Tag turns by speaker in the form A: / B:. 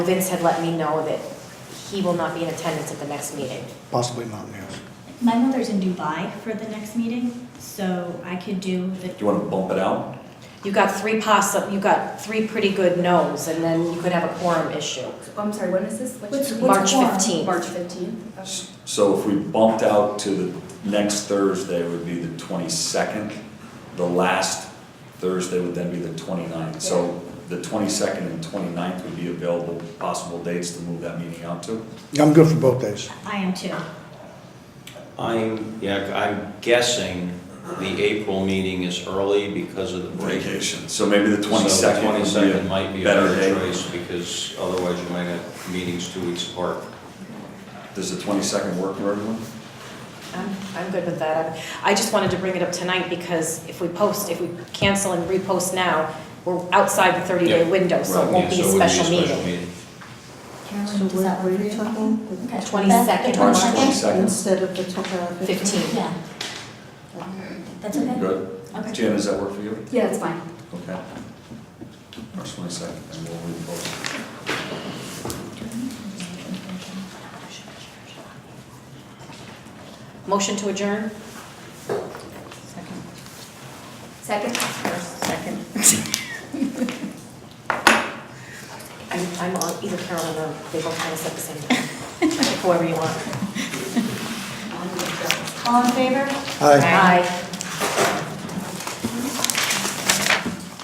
A: Vince had let me know that he will not be in attendance at the next meeting.
B: Possibly not, yes.
C: My mother's in Dubai for the next meeting, so I could do the,
D: Do you want to bump it out?
A: You got three possi, you got three pretty good no's, and then you could have a quorum issue.
E: Oh, I'm sorry, when is this? Which-
C: What's-
A: March
C: what's quorum?
A: 15th.
E: March fifteenth?
D: S- So if we bumped out to the next Thursday would be the twenty-second, the last Thursday would then be the 29th. So the twenty-second and 29th would be available possible dates to move that meeting out to.
B: I'm good for both days.
C: I am too.
F: I'm, yeah, I'm guessing the April meeting is early because of the break.
D: Vacation, so maybe the
F: So the
D: twenty-second
F: twenty-second might
D: would
F: be a
D: better
F: better
D: day.
F: choice, because otherwise you might have meetings two weeks apart.
D: Does the twenty-second work for everyone?
A: I'm, I'm good with that. I just wanted to bring it up tonight because if we post, if we cancel and repost now, we're outside the 30-day
F: Yeah.
A: window, so it won't
F: Yeah,
A: be a
F: it wouldn't
A: special meeting.
C: Carolyn, does that work for you? Okay.
A: Twenty-second.
D: March
C: That's-
D: 22nd.
G: Instead of the top
A: Fifteen.
C: Yeah, that's okay.
D: Good.
C: Okay.
D: Jan, does that work for you?
E: Yeah, it's fine.
D: Okay. March twenty-second, and we'll repost.
A: Motion to adjourn?
E: Second? Second.
A: I'm, I'm on either Carolyn or they both kind of said the same thing. Whoever you want.
E: Um,
C: All in favor?
B: Aye.
A: Aye.